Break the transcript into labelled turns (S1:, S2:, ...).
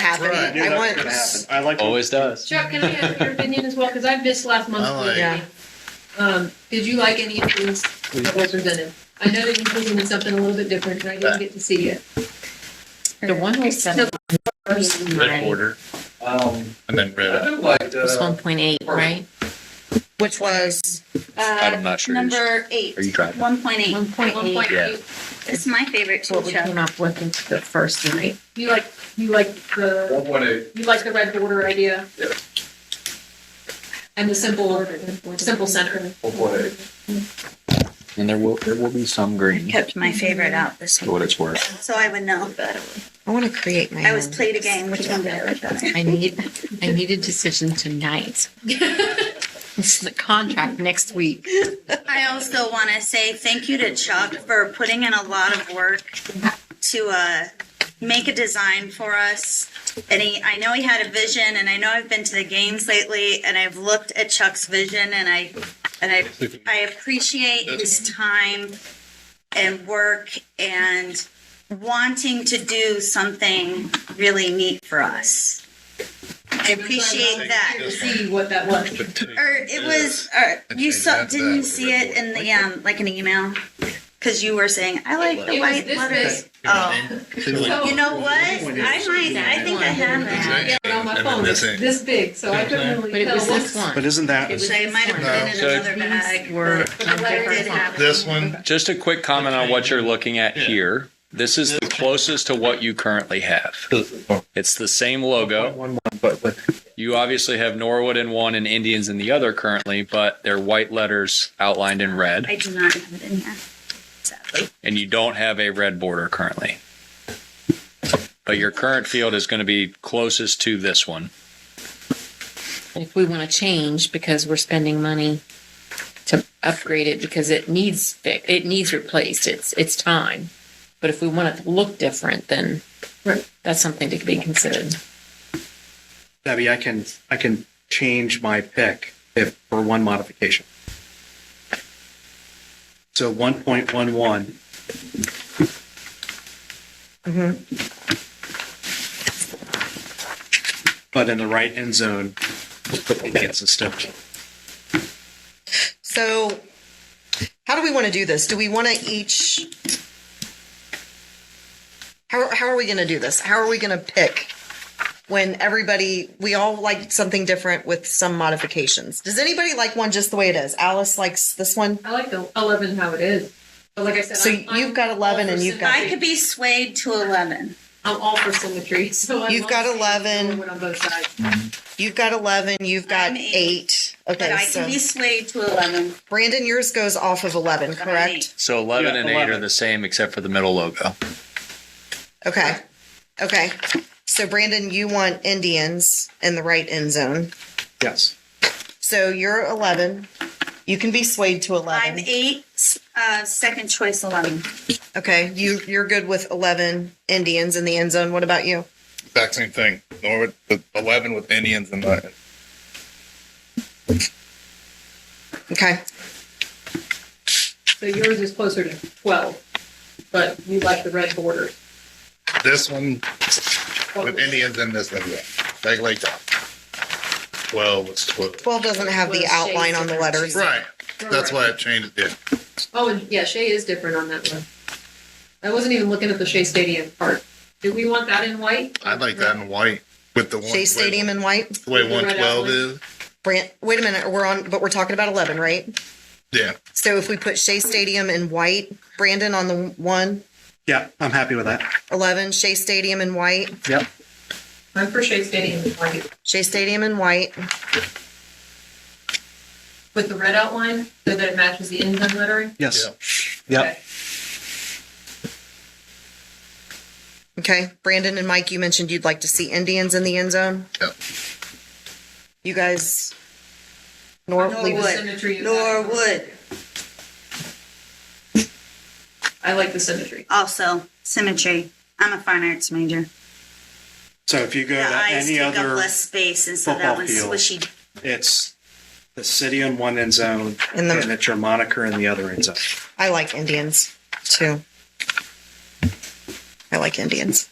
S1: happen.
S2: Right,
S1: I
S2: yeah,
S1: want.
S2: that's gonna happen. I like.
S3: Always does.
S4: Chuck, can I have your opinion as well? Because I missed last month's
S2: I
S4: board
S2: like-
S4: meeting. Um, did you like any of these that were presented? I know that you presented something a little bit different, and I didn't get to see it.
S5: The one we sent
S4: No.
S5: first,
S2: Red
S5: right?
S2: border
S6: Um,
S2: and then
S6: I
S2: red.
S6: do like
S5: It was one
S6: the,
S5: point eight, right?
S1: Which was
S3: I'm not sure.
S7: uh, Number eight.
S3: Are you driving?
S7: One point eight.
S5: One point
S4: One point,
S5: eight,
S3: Yeah.
S4: you,
S7: It's my favorite too,
S5: what we came
S7: Chuck.
S5: up with in the first, right?
S4: you like, you like the,
S6: one point eight,
S4: you like the red border idea?
S6: Yeah.
S4: And the simple, simple center.
S6: one point eight.
S3: And there will, there will be some
S7: I
S3: green,
S7: kept my favorite out this
S3: for
S7: week,
S3: what it's worth.
S7: so I would know.
S1: I want to create my.
S7: I was
S1: own.
S7: played a game, which one did I like better?
S5: I need, I need a decision tonight. This is the contract next week.
S7: I also want to say thank you to Chuck for putting in a lot of work to uh, make a design for us. And he, I know he had a vision, and I know I've been to the games lately, and I've looked at Chuck's vision, and I, and I, I appreciate his time and work and wanting to do something really neat for us. I appreciate that
S4: To see what that was.
S7: or it was or you saw didn't you see it in the um like an email because you were saying i like the
S4: It was
S7: white
S4: this
S7: letters
S4: big.
S7: oh
S4: So-
S7: you know what i might i think i have that
S4: Yeah, but on my phone, it's this big, so I couldn't
S5: But
S4: really
S5: it
S4: tell
S5: was this
S4: what.
S2: But
S5: one.
S2: isn't that,
S7: so it might have been in
S5: No.
S7: another bag
S5: These were
S7: but the letter did have it.
S2: this one,
S3: Just a quick comment on what you're looking at here. This is the closest to what you currently have. It's the same logo. You obviously have Norwood in one and Indians in the other currently, but they're white letters outlined in red,
S7: i do not have it in here sadly
S3: and you don't have a red border currently. But your current field is going to be closest to this one.
S5: And If we want to change because we're spending money to upgrade it because it needs fix, it needs replaced, it's, it's time. But if we want it to look different, then
S4: Right.
S5: that's something to be considered.
S8: Debbie, I can, I can change my pick if, for one modification. So one point one one. But in the right end zone, we'll put Indians instead.
S1: So, how do we want to do this? Do we want to each? How, how are we going to do this? How are we going to pick when everybody, we all like something different with some modifications? Does anybody like one just the way it is? Alice likes this one.
S4: I like the eleven how it is, but like I said.
S1: So
S4: I'm- I'm
S1: you've got
S4: all
S1: 11
S4: for
S1: and you've got-
S7: i
S4: symmetry.
S7: could be swayed to 11
S4: I'm all for symmetry, so. I
S1: You've
S4: love
S1: got
S4: seeing
S1: 11.
S4: someone On both sides.
S1: You've got 11, you've got
S7: I'm eight.
S1: eight.
S7: but
S1: Okay,
S7: i
S1: so
S7: can be swayed to 11
S1: Brandon, yours goes off of 11,
S7: but I'm
S1: correct?
S7: eight.
S3: So 11
S2: Yeah,
S3: and 8 are
S2: 11.
S3: the same except for the middle logo.
S1: Okay. Okay. So, Brandon, you want Indians in the right end zone.
S8: Yes.
S1: So, you're 11. You can be swayed to 11.
S7: i'm eight uh second choice 11
S1: Okay, you you're good with eleven Indians in the end zone. What about you?
S2: exact same thing, Norwood, with eleven with Indians in mind.
S1: Okay,
S4: So yours is closer to twelve, but you like the red Oh, borders.
S2: This one with Indians in this one, yeah. like like that. Twelve was twelve.
S1: twelve doesn't have the
S4: Well,
S1: outline
S4: shades
S1: on the
S4: of that
S1: letters.
S2: Right, that's why I changed it.
S4: Oh, and yeah, Shea is different on that one. I wasn't even looking at the Shea Stadium part. Do we want that in white?
S2: I like that in white with the one.
S1: Shea Stadium in white.
S2: The way one twelve is,
S1: Brand, wait a minute, we're on, but we're talking about eleven, right?
S2: yeah.
S1: So if we put Shea Stadium in white, Brandon on the one,
S8: Yeah, I'm happy with that.
S1: 11, Shea Stadium in white,
S8: Yep.
S4: I'm for Shea Stadium in white
S1: Shea Stadium in white.
S4: with the red outline so that it matches the end zone lettering.
S8: Yes.
S2: Yeah.
S8: Yep.
S4: Okay.
S1: Okay, Brandon and Mike, you mentioned you'd like to see Indians in the end zone.
S2: Yep.
S1: You guys, nor, leave
S4: The
S1: us-
S7: Norwood.
S4: symmetry of that.
S7: norwood
S4: I like the symmetry.
S7: also symmetry i'm a fine arts major
S8: So if you go
S7: The
S8: to
S7: eyes
S8: any
S7: take up
S8: other,
S7: less space, and so that
S8: football
S7: one's
S8: field.
S7: swishy.
S8: it's the city in one end zone
S1: In
S8: and
S1: the-
S8: it's your moniker in the other end zone.
S1: I like Indians too. I like Indians.